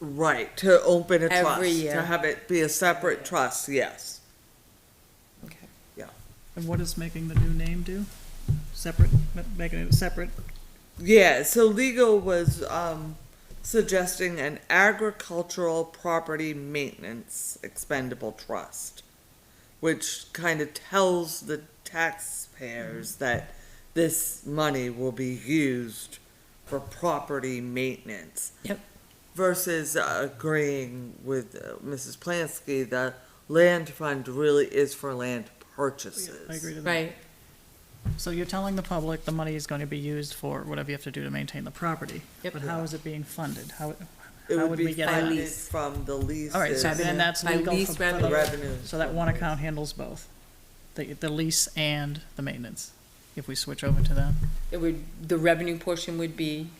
Right, to open a Every trust, to year. have it be a separate trust, yes. Okay. And what is making the new name do? Separate, ma- making it separate? Yeah, so legal was um, suggesting an agricultural property maintenance expendable trust, which kind of tells the taxpayers that this money will be used for property maintenance. Yep. Versus uh, agreeing with uh, Mrs. Plansky, the land fund really is for land purchases. I agree to that. Right, So you're telling the public the money is going to be used for whatever you have to do to maintain the property. Yep. But how is it being funded? How, It How would would be we get that? funded Lease. from the leases. all right, so then Revenue. that's By legal for- lease for the- The revenue. revenue. So that one account handles both, the, the lease and the maintenance, if we switch over to that, it would, the revenue portion would be,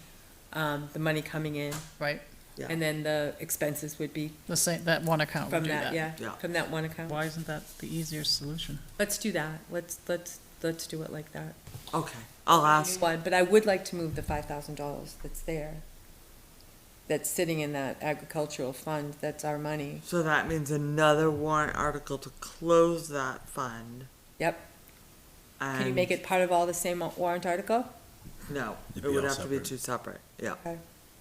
um, the money coming in, right? Yeah. and then the expenses would be The same, that one account would from Oh, do that, that. yeah, Yeah. from that one account. Why isn't that the easier solution? Let's do that, let's, let's, let's do it like that. Okay, I'll ask. But, but I would like to move the five thousand dollars that's there, that's sitting in that agricultural fund, that's our money. So that means another warrant article to close that fund. Yep, can you make and- it part of all the same warrant article? No, it It'd be would all have to be separate. two separate, yeah.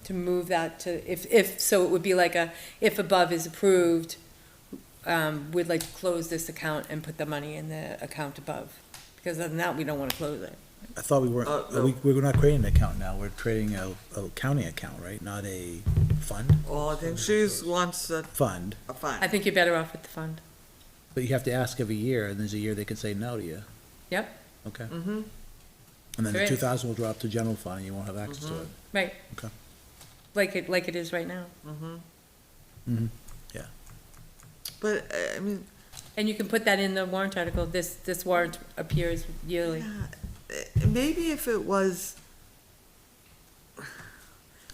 to move that to, if, if, so it would be like a, if above is approved, um, we'd like to close this account and put the money in the account above, because other than that, we don't wanna close it. I thought we weren't, Uh, uh, we, no. we're not creating an account now, we're creating a, a county account, right? Not a fund, Well, I think she's wants a, fund, a I fund. think you're better off with the fund. but you have to ask every year, and there's a year they can say no to you, Yep, okay? Mm-hmm, And then the Great. two thousand will drop to general fund, and you won't have access to it. right. Okay. Like it, like it is right now. mm-hmm. Mhm. Yeah. But, uh, I mean, And you can put that in the warrant article, this, this warrant appears yearly. yeah, uh, maybe if it was,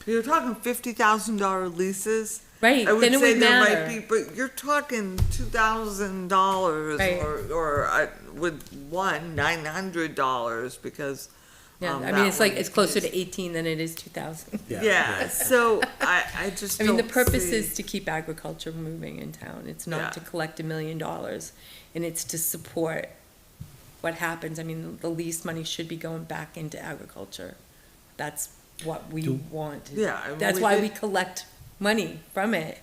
you're talking fifty thousand dollar leases, Right, I would then it say would there might be, matter. but you're talking two thousand dollars Right. or or uh, with one nine hundred dollars because Yeah, um, I that mean, it's like, one it's closer is- to eighteen than it is two thousand. yeah. so I I just I mean, the don't purpose see- is to keep agriculture moving in town. It's Yeah. not to collect a million dollars, and it's to support what happens. I mean, the lease money should be going back into agriculture. That's what we Do- want. Yeah, I mean, That's we why did- we collect money from it.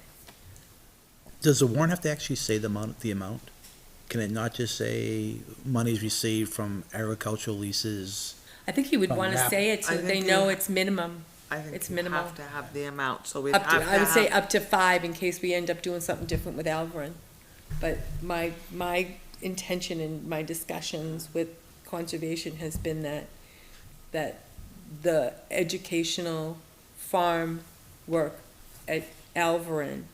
Does the warrant have to actually say the amount, the amount? Can it not just say monies received from agricultural leases? I think you would From want to that- say it I so that they think know you- it's minimum. I think it's you minimal. have to have the amount, so we have Up to, to. I would say have- up to five in case we end up doing something different with Alverin. But my, my intention in my discussions with conservation has been that, that the educational farm work at Alverin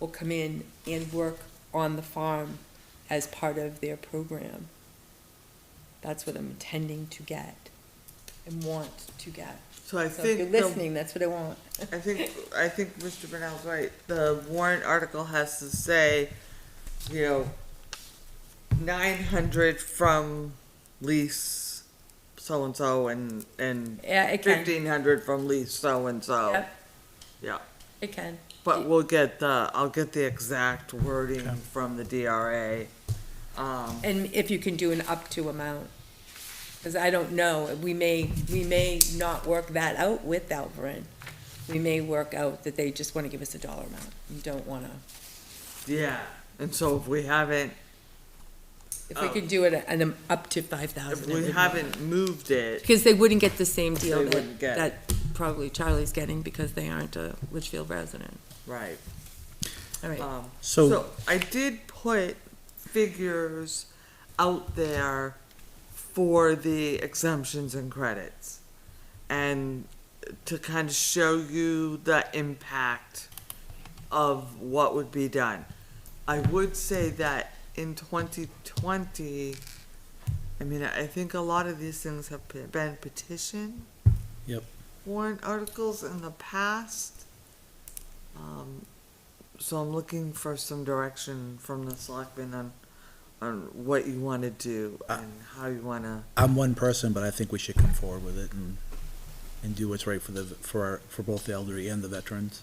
will come in and work on the farm as part of their program. That's what I'm intending to get and want to get. So I So if you're think the, listening, that's what I want. I think I think Mr. Brunel's right. The warrant article has to say, you know, nine hundred from lease so and so and and Yeah, it can. fifteen hundred from lease so and so. Yep. Oh. Yeah, It can. but we'll get the, I'll get the exact wording from the DRA. Um, And if you can do an up to amount, because I don't know, we may, we may not work that out with Alverin. We may work out that they just want to give us a dollar amount, you don't want to, yeah, and so if we haven't, if we Oh. could do it at an up to five if thousand. we haven't moved it, Because they wouldn't get the same deal They wouldn't that, get it. that probably Charlie's getting because they aren't a Litchfield resident. right. All right, Um, So, so I did put figures out there for the exemptions and credits. And to kind of show you the impact of what would be done. I would say that in twenty twenty, I mean, I think a lot of these things have pe- been petition. Yep. Warrant articles in the past. Um, so I'm looking for some direction from the selectmen on, on what you wanna do and how you wanna, I'm one person, but I think we should come forward with it and, and do what's right for the, for our, for both the elderly and the veterans.